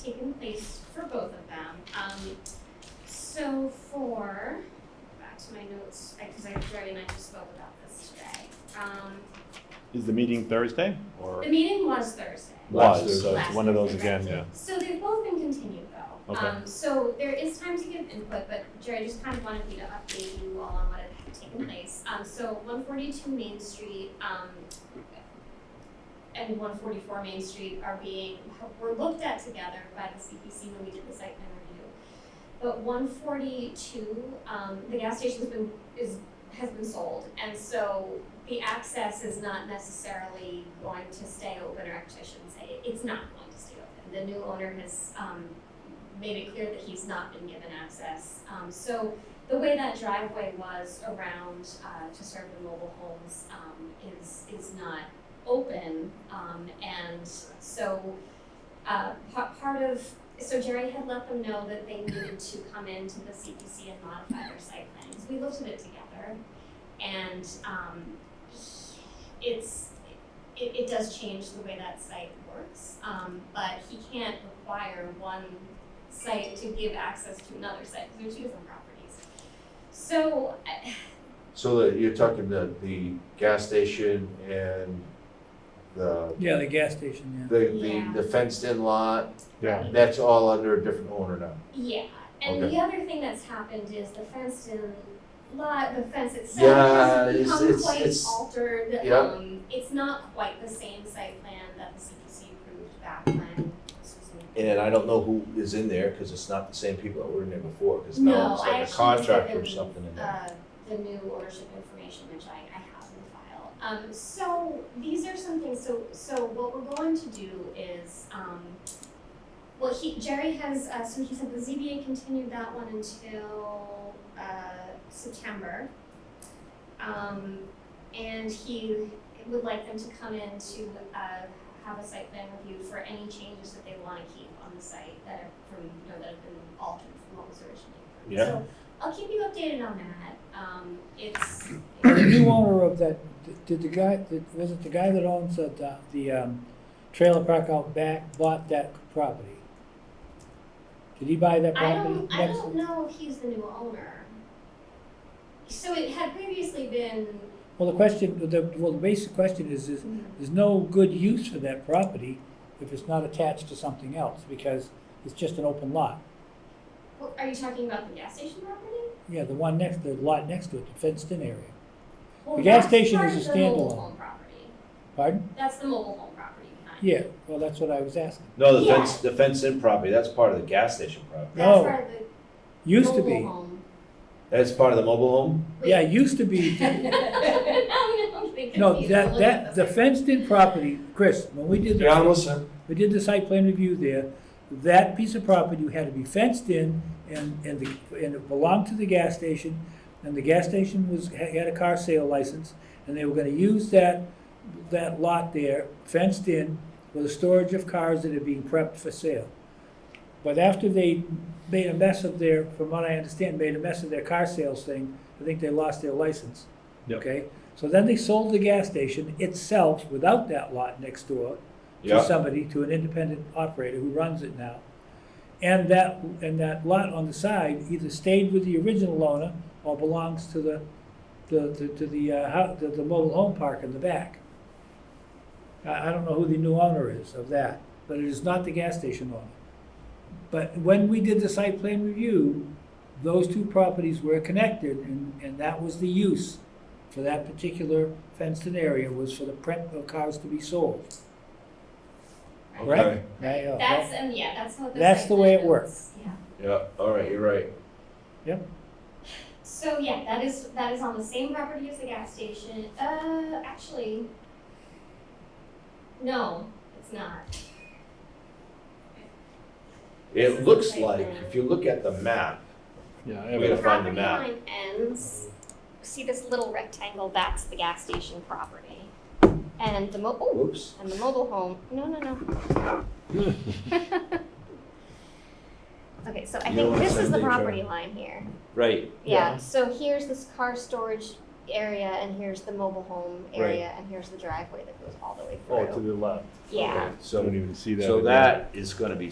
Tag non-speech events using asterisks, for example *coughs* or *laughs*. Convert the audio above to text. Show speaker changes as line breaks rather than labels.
taken place for both of them. Um, so for, back to my notes, because I, Jerry and I just spoke about this today. Um,
Is the meeting Thursday or
the meeting was Thursday.
Last
was? So it's
Last
one of those
Thursday,
again,
right.
yeah.
So they've both been continued though.
Okay.
Um, so there is time to give input, but Jerry just kind of wanted me to update you all on what had
Mm-hmm.
taken place. Um, so one forty-two Main Street, um, and one forty-four Main Street are being, were looked at together by the CPC when we did the site plan review. But one forty-two, um, the gas station's been, is, has been sold, and so the access is not necessarily going to stay open, or actually I shouldn't say, it. it's not going to stay open. The new owner has, um, made it clear that he's not been given access. Um, so the way that driveway was around, uh, to serve the mobile homes, um, is, is not open. Um, and so, uh, pa- part of, so Jerry had let them know that they needed to come into the CPC and modify their site plans. We looked at it together and, um, it's, it, it does change the way that site works. Um, but he can't require one site to give access to another site, because they're two different properties. So, I-
So that you're talking the, the gas station and the,
Yeah, the gas station, yeah.
the,
Yeah.
the, the fenced in lot,
Yeah.
that's all under a different owner now.
yeah, and
Okay.
the other thing that's happened is the fenced in lot, the fence itself
Yeah,
has
it's-
become
it's-
quite
it's-
altered.
yeah.
Um, it's not quite the same site plan that the CPC approved back when this was in
And I don't know who is in there, cause it's not the same people that were in there before, cause
No,
now it's
I
like a
actually sent
contractor
them,
or something in there.
uh, the new ownership information, which I, I have in file. Um, so these are some things, so, so what we're going to do is, um, well, he, Jerry has, uh, so he said the ZBA continued that one until, uh, September. Um, and he would like them to come in to, uh, have a site plan review for any changes that they wanna keep on the site that are from, you know, that have been altered from what was originally approved.
Yeah.
So I'll keep you updated on that, um,
*coughs*
it's,
The new owner of that, did the guy, did- was it the guy that owns the- the, the um, trailer park out back bought that property? Did he buy that
I
property?
don't, I
next-
don't know if he's the new owner. So it had previously been,
Well, the question, the, well, the basic question is, is there's no good use for that property if it's not attached to something else, because it's just an open lot.
Well, are you talking about the gas station property?
Yeah, the one next, the lot next to it, the fenced-in area.
Well,
The gas
that's
station
part
is
of
a
the mobile
standalone.
home property.
Pardon?
That's the mobile home property behind.
Yeah, well, that's what I was asking.
No, the
yeah.
fence, the fenced in property, that's part of the gas station property,
That's
No,
part of the
Used to
mobile
be, *laughs*
home.
that's part of the mobile home?
yeah, used to be,
*laughs* I'm getting
No,
confused.
that,
Look
that,
at
the
this.
fenced-in property, Chris, when we did the,
listening.
we did the site plan review there, that piece of property had to be fenced in, and, and the, and it belonged to the gas station, and the gas station was, had a car sale license, and they were gonna use that, that lot there, fenced in, for the storage of cars that are being prepped for sale. But after they made a mess of their, from what I understand, made a mess of their car sales thing, I think they lost their license.
Yep.
Okay, so then they sold the gas station itself without that lot next door to
Yeah.
somebody, to an independent operator who runs it now. And that, and that lot on the side either stayed with the original owner or belongs to the, the, to- to the, uh, hou- the, the mobile home park in the back. I, I don't know who the new owner is of that, but it is not the gas station owner. But when we did the site plan review, those two properties were connected and, and that was the use for that particular fenced-in area was for the prep of cars to be sold.
Okay,
Correct? Right, oh,
That's, um, yeah, that's how the.
That's
site
the way
plan
it works.
goes. Yeah.
yeah, all right, you're right.
So yeah, that is, that is on the same property as the gas station, uh, actually. No, it's not.
It looks like, if you look at the map,
Yeah, I
we
have it.
gotta find the map.
Property line ends, see this little rectangle, that's the gas station property. And the mo, oh,
Oops.
and the mobile home, no, no, no. *laughs* Okay, so I
You know
think
what
this is the
Sunday, Joe?
property line here.
Right.
Yeah, so here's this car storage area and here's the mobile home area and here's the driveway that goes all the way
Oh, to
through.
the left.
Yeah.
So,
even see
so
in there.
that is gonna be